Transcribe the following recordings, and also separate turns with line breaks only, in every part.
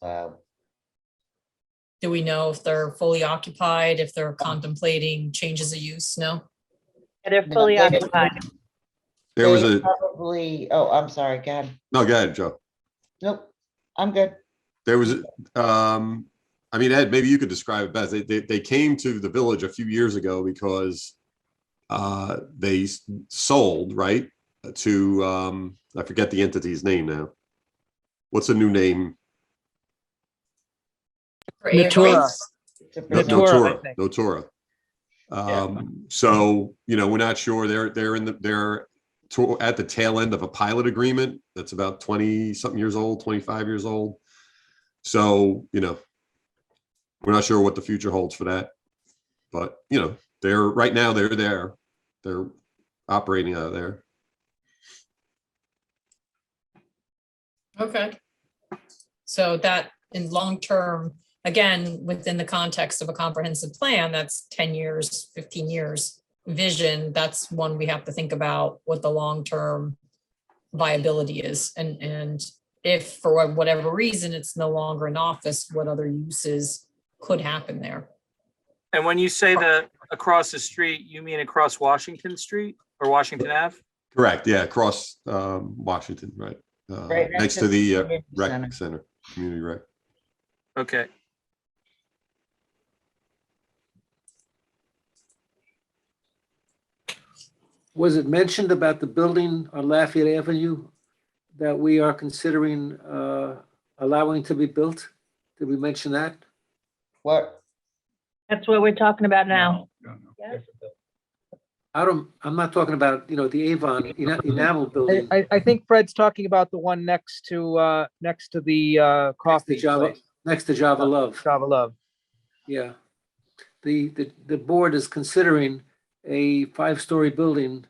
Uh,
Do we know if they're fully occupied, if they're contemplating changes of use? No?
They're
No,
fully
they-
occupied.
There was
they
a,
Probably, oh, I'm sorry, go ahead.
no, go ahead, Joe.
Nope, I'm good.
There was, um, I mean, Ed, maybe you could describe it best. They, they, they came to the village a few years ago because uh, they s- sold, right? To, um, I forget the entity's name now. What's the new name?
For A-
Natura.
It's a
No-
presumption.
Notora, I
Notora,
think.
Notora. Um, so, you know, we're not sure. They're, they're in the, they're to, at the tail end of a pilot agreement that's about twenty something years old, twenty-five years old. So, you know, we're not sure what the future holds for that. But, you know, they're, right now, they're there. They're operating out of there.
Okay. So that in long term, again, within the context of a comprehensive plan, that's ten years, fifteen years vision, that's one we have to think about what the long term viability is and and if for wha- whatever reason it's no longer an office, what other uses could happen there?
And when you say the across the street, you mean across Washington Street or Washington Ave?
Correct, yeah, across, um, Washington, right? Uh,
Right next
Next
to
to the uh,
community center.
rec center, community rec.
Okay,
Was it mentioned about the building on Lafayette Avenue that we are considering uh, allowing to be built? Did we mention that?
What,
That's what we're talking about now.
I don't, I'm not talking about, you know, the Avon ena- enamel
I,
building.
I, I think Fred's talking about the one next to, uh, next to the, uh,
next to
coffee
Java,
place,
next to Java Love,
Java Love.
yeah. The, the, the board is considering a five-story building,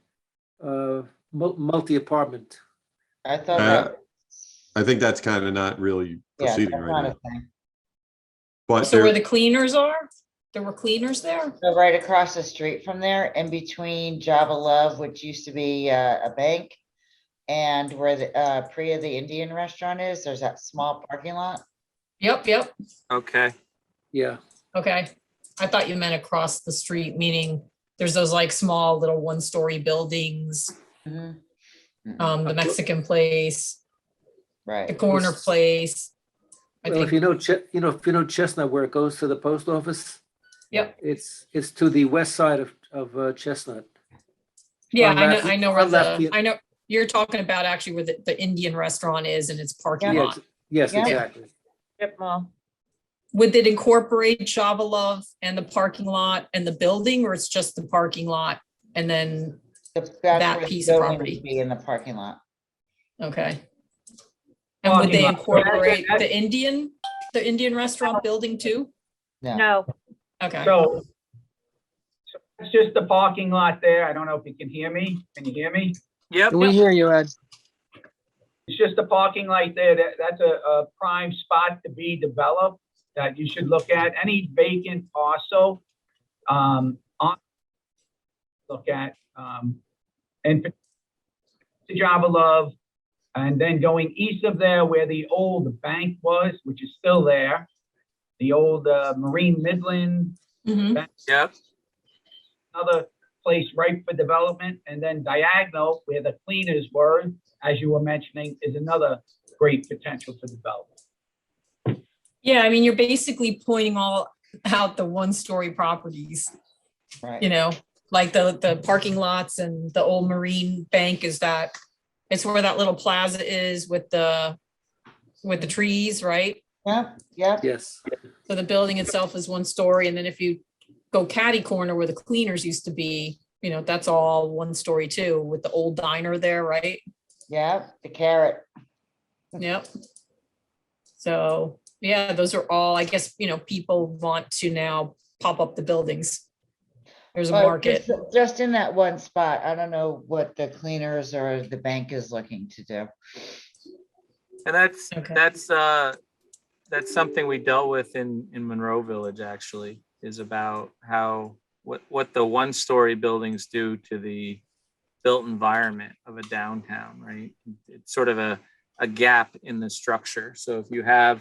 uh, mul- multi-apartment.
I thought.
Uh,
that-
I think that's kind of not really
Yeah, that's
proceeding right
not a
now.
thing.
But
So
there-
where the cleaners are? There were cleaners there?
So right across the street from there, in between Java Love, which used to be uh, a bank, and where the uh, Priya, the Indian restaurant is, there's that small parking lot.
Yep, yep.
okay.
Yeah,
Okay, I thought you meant across the street, meaning there's those like small little one-story buildings,
Mhm.
um, the Mexican place, the
Right,
corner place. I
well, if
think,
you know, Che- you know, if you know Chestnut where it goes to the post office.
Yep.
It's, it's to the west side of, of uh, Chestnut.
yeah,
on
I know,
left-
I know where
on left,
the,
yeah.
I know, you're talking about actually where the, the Indian restaurant is and its parking
Yeah,
lot.
ex- Yes,
Yeah.
exactly.
Strip mall.
Would it incorporate Java Love and the parking lot and the building, or it's just the parking lot? And then,
The- that's
that
where the
piece of
building would
property.
Be in the parking lot.
okay. And would they incorporate the Indian, the Indian restaurant building too?
No,
Okay.
So, so that's just the parking lot there. I don't know if you can hear me. Can you hear me?
Yep,
Can we hear you, Ed?
It's just the parking lot there. That, that's a, a prime spot to be developed that you should look at. Any vacant parcel, um, on, look at, um, and to Java Love, and then going east of there where the old bank was, which is still there, the old uh, Marine Midland
Mhm.
yep,
another place ripe for development. And then diagonal, where the cleaners were, as you were mentioning, is another great potential for development.
Yeah, I mean, you're basically pointing all out the one-story properties, you
Right,
know, like the, the parking lots and the old Marine Bank is that, it's where that little plaza is with the, with the trees, right?
yep, yep,
Yes.
So the building itself is one story, and then if you go catty corner where the cleaners used to be, you know, that's all one story too, with the old diner there, right?
yep, the carrot.
Yep. So, yeah, those are all, I guess, you know, people want to now pop up the buildings. There's a
But
market.
just- Just in that one spot. I don't know what the cleaners or the bank is looking to do.
and that's,
Okay.
that's, uh, that's something we dealt with in, in Monroe Village, actually, is about how, what, what the one-story buildings do to the built environment of a downtown, right? It's sort of a, a gap in the structure. So if you have